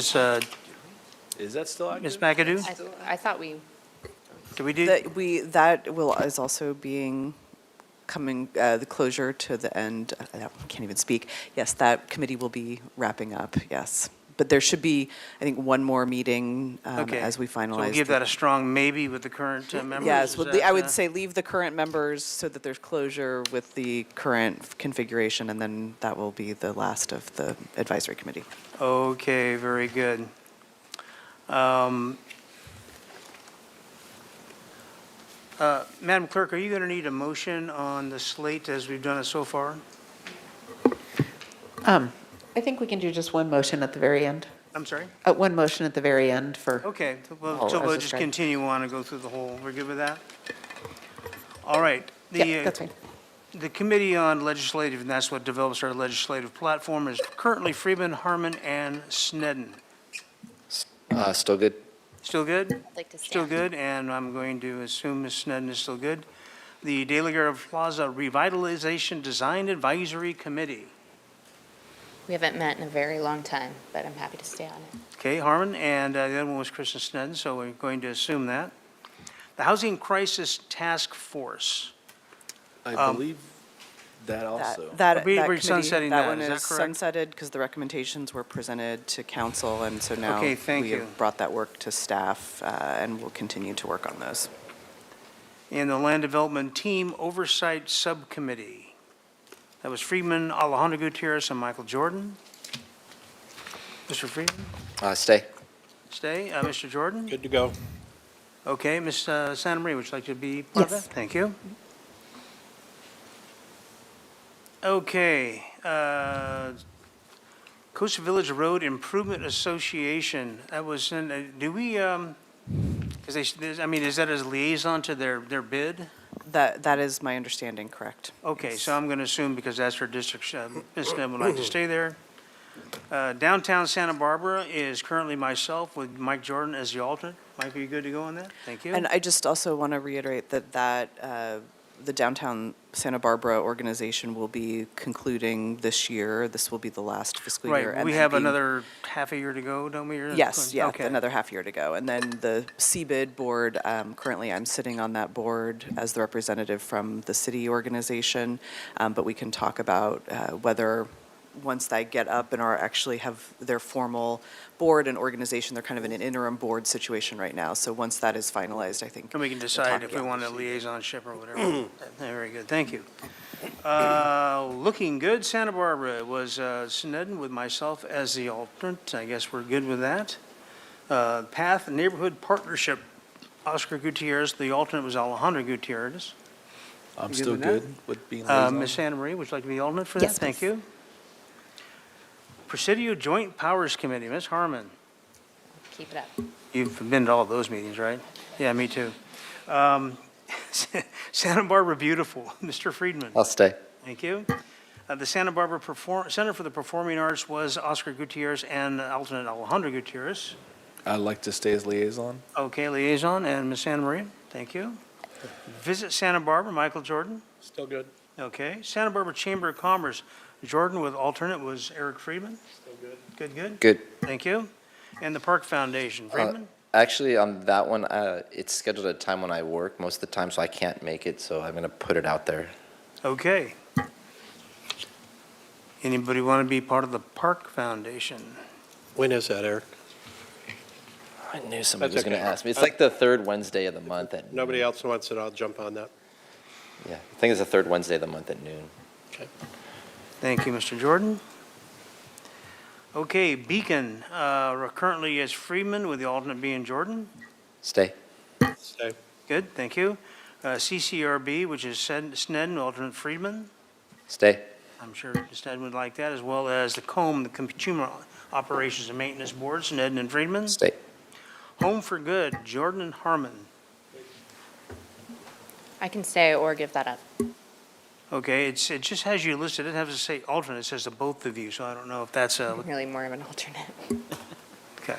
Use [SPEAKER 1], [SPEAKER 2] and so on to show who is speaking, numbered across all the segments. [SPEAKER 1] Ms. uh,
[SPEAKER 2] Is that still
[SPEAKER 1] Ms.
[SPEAKER 2] active?
[SPEAKER 1] McAdoo,
[SPEAKER 3] I, I thought we,
[SPEAKER 1] did we do,
[SPEAKER 4] That we, that will, is also being, coming, uh, the closure to the end, uh, I don't- can't even speak. Yes, that committee will be wrapping up, yes. But there should be, I think, one more meeting um,
[SPEAKER 1] okay.
[SPEAKER 4] as we finalize.
[SPEAKER 1] So we'll give
[SPEAKER 4] the-
[SPEAKER 1] that a strong maybe with the current uh, members?
[SPEAKER 4] Yes,
[SPEAKER 1] is
[SPEAKER 4] would-
[SPEAKER 1] that,
[SPEAKER 4] I would
[SPEAKER 1] uh,
[SPEAKER 4] say leave the current members so that there's closure with the current configuration, and then that will be the last of the advisory committee.
[SPEAKER 1] Okay, very good. Um, uh, Madam Clerk, are you going to need a motion on the slate as we've done it so far?
[SPEAKER 5] Um, I think we can do just one motion at the very end,
[SPEAKER 1] I'm sorry?
[SPEAKER 5] uh, one motion at the very end for,
[SPEAKER 1] Okay, well,
[SPEAKER 5] Oh,
[SPEAKER 1] so
[SPEAKER 5] as
[SPEAKER 1] we'll just
[SPEAKER 5] described.
[SPEAKER 1] continue on and go through the whole, we're good with that? All right. The,
[SPEAKER 5] yeah,
[SPEAKER 1] uh,
[SPEAKER 5] that's fine.
[SPEAKER 1] The Committee on Legislative, and that's what develops our legislative platform, is currently Freeman, Harmon, and Snedden.
[SPEAKER 2] Uh, still good.
[SPEAKER 1] Still good?
[SPEAKER 3] I'd like to
[SPEAKER 1] Still
[SPEAKER 3] stand.
[SPEAKER 1] good, and I'm going to assume Ms. Snedden is still good. The De La Guerra Plaza Revitalization Design Advisory Committee.
[SPEAKER 3] we haven't met in a very long time, but I'm happy to stay on it.
[SPEAKER 1] Okay, Harmon, and uh, the other one was Kristen Snedden, so we're going to assume that. The Housing Crisis Task Force.
[SPEAKER 2] I believe that
[SPEAKER 4] That-
[SPEAKER 2] also.
[SPEAKER 4] That, that
[SPEAKER 1] We- we're
[SPEAKER 4] committee,
[SPEAKER 1] sunsetting that,
[SPEAKER 4] that one
[SPEAKER 1] is that
[SPEAKER 4] is
[SPEAKER 1] correct?
[SPEAKER 4] sunsetted because the recommendations were presented to council, and so now
[SPEAKER 1] Okay, thank
[SPEAKER 4] we
[SPEAKER 1] you.
[SPEAKER 4] have brought that work to staff, uh, and we'll continue to work on those.
[SPEAKER 1] and the Land Development Team Oversight Subcommittee. That was Freeman, Alejandro Gutierrez, and Michael Jordan. Mr. Freeman,
[SPEAKER 6] Uh, stay.
[SPEAKER 1] stay. Uh, Mr. Jordan?
[SPEAKER 2] Good to go.
[SPEAKER 1] Okay, Ms. uh, Santa Maria, would you like to be part of that?
[SPEAKER 5] Yes.
[SPEAKER 1] Thank you. Okay. uh, Costa Village Road Improvement Association, that was in, uh, do we, because they, s- I mean, is that as liaison to their, their bid?
[SPEAKER 4] That, that is my understanding, correct?
[SPEAKER 1] Okay,
[SPEAKER 4] Yes.
[SPEAKER 1] so I'm going to assume, because that's her district, uh, Ms. Snem would like to stay there. Uh, Downtown Santa Barbara is currently myself with Mike Jordan as the alternate. Mike, are you good to go on that? Thank you.
[SPEAKER 4] And I just also want to reiterate that that, uh, the downtown Santa Barbara organization will be concluding this year. This will be the last fiscal year.
[SPEAKER 1] Right,
[SPEAKER 4] and
[SPEAKER 1] we
[SPEAKER 4] then
[SPEAKER 1] have
[SPEAKER 4] being-
[SPEAKER 1] another half a year to go, don't we? or-
[SPEAKER 4] Yes, yeah,
[SPEAKER 1] Okay.
[SPEAKER 4] another half year to go. And then the CBID board, um, currently I'm sitting on that board as the representative from the city organization, um, but we can talk about uh, whether, once they get up and are actually have their formal board and organization, they're kind of in an interim board situation right now. So once that is finalized, I think.
[SPEAKER 1] And we can
[SPEAKER 4] we'll
[SPEAKER 1] decide
[SPEAKER 4] talk
[SPEAKER 1] if we
[SPEAKER 4] about
[SPEAKER 1] want a
[SPEAKER 4] this.
[SPEAKER 1] liaisonship or whatever. Very good, thank you. Uh, Looking Good Santa Barbara was uh, Sneddon with myself as the alternate. I guess we're good with that. Uh, Path Neighborhood Partnership, Oscar Gutierrez, the alternate was Alejandro Gutierrez.
[SPEAKER 2] I'm
[SPEAKER 1] good
[SPEAKER 2] still
[SPEAKER 1] with
[SPEAKER 2] good with being
[SPEAKER 1] Uh,
[SPEAKER 2] liaison.
[SPEAKER 1] Ms. Santa Maria, would you like to be the alternate for that?
[SPEAKER 5] Yes,
[SPEAKER 1] Thank
[SPEAKER 5] please.
[SPEAKER 1] you. Presidio Joint Powers Committee, Ms. Harmon.
[SPEAKER 3] Keep it up.
[SPEAKER 1] You've been to all those meetings, right? Yeah, me too. Um, Santa Barbara Beautiful, Mr. Friedman.
[SPEAKER 2] Oh.
[SPEAKER 6] I'll stay.
[SPEAKER 1] Thank you. Uh, The Santa Barbara Perform, Center for the Performing Arts was Oscar Gutierrez and alternate Alejandro Gutierrez.
[SPEAKER 2] I'd like to stay as liaison.
[SPEAKER 1] Okay, liaison, and Ms. Santa Maria, thank you. Visit Santa Barbara, Michael Jordan.
[SPEAKER 2] Still good.
[SPEAKER 1] Okay, Santa Barbara Chamber of Commerce, Jordan with alternate was Eric Friedman. Good, good,
[SPEAKER 6] Good.
[SPEAKER 1] thank you. And the Park Foundation, Friedman?
[SPEAKER 6] Actually, on that one, uh, it's scheduled at a time when I work most of the time, so I can't make it. So I'm gonna put it out there.
[SPEAKER 1] Okay. Anybody want to be part of the Park Foundation?
[SPEAKER 7] When is that, Eric?
[SPEAKER 6] I knew somebody was
[SPEAKER 7] That's
[SPEAKER 6] gonna
[SPEAKER 7] okay.
[SPEAKER 6] ask me. It's
[SPEAKER 7] Uh,
[SPEAKER 6] like the third Wednesday of the month at.
[SPEAKER 7] Nobody
[SPEAKER 6] noon.
[SPEAKER 7] else wants it, I'll jump on that.
[SPEAKER 6] Yeah, I think it's the third Wednesday of the month at noon.
[SPEAKER 1] Thank you, Mr. Jordan. Okay, Beacon, uh, we're currently is Freeman with the alternate being Jordan.
[SPEAKER 6] Stay.
[SPEAKER 7] Stay.
[SPEAKER 1] Good, thank you. Uh, CCRB, which is Sed- Sneddon, alternate Friedman.
[SPEAKER 6] Stay.
[SPEAKER 1] I'm sure Sneddon would like that, as well as the COM, the Consumer Operations and Maintenance Board, Sneddon and Friedman.
[SPEAKER 6] Stay.
[SPEAKER 1] Home for Good, Jordan and Harmon.
[SPEAKER 3] I can stay or give that up.
[SPEAKER 1] Okay, it's, it just has you listed, it doesn't have to say alternate, it says the both of you, so I don't know if that's uh, a,
[SPEAKER 3] I'm really more of an alternate.
[SPEAKER 1] okay.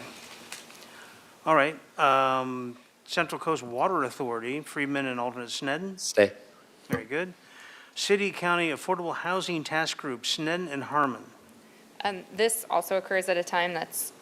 [SPEAKER 1] All right, um, Central Coast Water Authority, Freeman and alternate Sneddon,
[SPEAKER 6] Stay.
[SPEAKER 1] very good. City County Affordable Housing Task Group, Sneddon and Harmon.
[SPEAKER 3] Um, this also occurs at a time that's